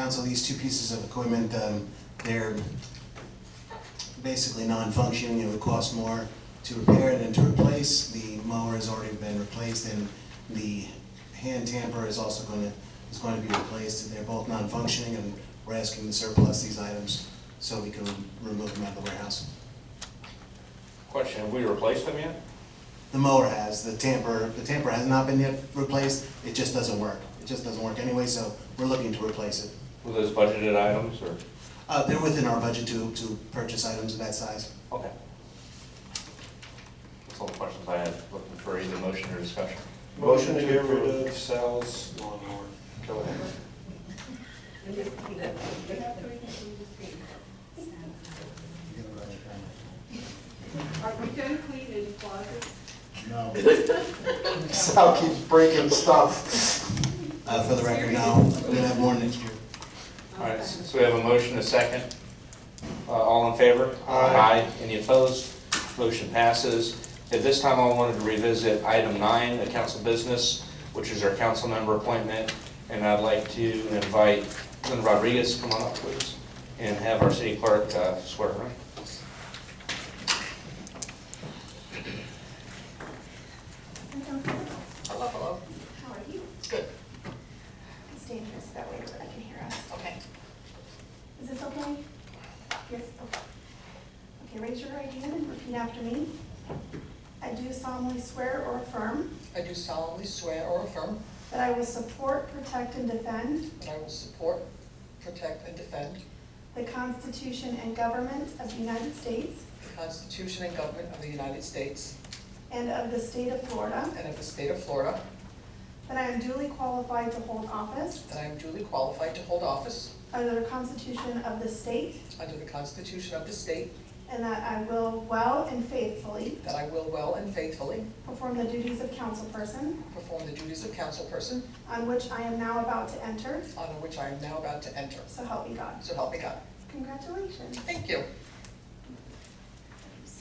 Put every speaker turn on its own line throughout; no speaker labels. council these two pieces of equipment, um, they're basically non-functioning, it would cost more to repair than to replace. The mower has already been replaced and the hand tamper is also gonna, is going to be replaced. They're both non-functioning and we're asking to surplus these items so we can remove them out of the warehouse.
Question, have we replaced them yet?
The mower has, the tamper, the tamper has not been yet replaced, it just doesn't work. It just doesn't work anyway, so we're looking to replace it.
Were those budgeted items or?
Uh, they're within our budget to, to purchase items of that size.
Okay. That's all the questions I had, looking for either motion or discussion.
Motion to get rid of Sal's lawnmower. Go ahead.
Are we done cleaning the closet?
No.
Sal keeps breaking stuff.
Uh, for the record, no, we're gonna have more next year.
All right, so we have a motion, a second. Uh, All in favor?
Aye.
Any opposed? Motion passes. At this time, I wanted to revisit item nine, the council business, which is our council member appointment. And I'd like to invite Lynn Rodriguez, to come on up, please, and have our city clerk uh, swear her in.
Hello, hello. How are you? Good. It's dangerous that way, but I can hear us. Okay. Is this okay? Yes, okay. Okay, raise your right hand and repeat after me. I do solemnly swear or affirm
I do solemnly swear or affirm
that I will support, protect, and defend
that I will support, protect, and defend
the Constitution and government of the United States
the Constitution and government of the United States
and of the state of Florida,
and of the state of Florida,
that I am duly qualified to hold office
that I am duly qualified to hold office
under the Constitution of the state,
under the Constitution of the state,
and that I will well and faithfully
that I will well and faithfully
perform the duties of councilperson
perform the duties of councilperson
on which I am now about to enter,
on which I am now about to enter.
so help me God.
So help me God.
Congratulations.
Thank you.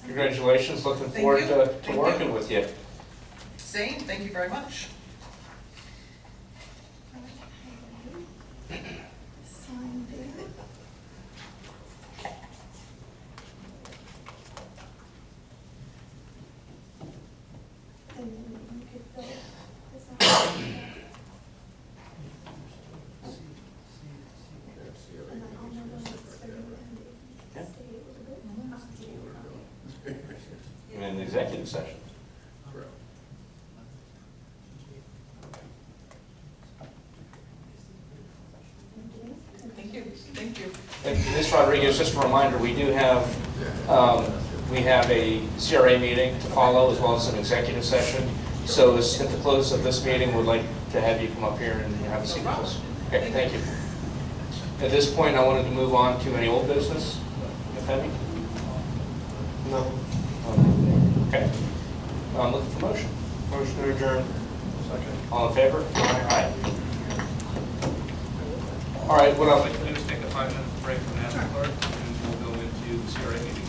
Congratulations, looking
Thank
forward
you.
to to
Thank you.
working with you.
Same, thank you very much.
Sign there. And then you could fill this out. And then I'll never let it stay
Yeah.
a little bit. Up to you.
in an executive session.
Thank you, thank you.
And Ms. Rodriguez, just a reminder, we do have, um, we have a CRA meeting to follow as well as an executive session. So as- at the close of this meeting, we'd like to have you come up here and have a seat with us. Okay, thank you. At this point, I wanted to move on to any old business, if any.
No.
Okay. I'm looking for motion.
Motion to adjourn. Second.
All in favor? Aye. All right, what
What I'd
else?
like to do is take a five-minute break from that, clerk, and we'll go into the CRA meeting.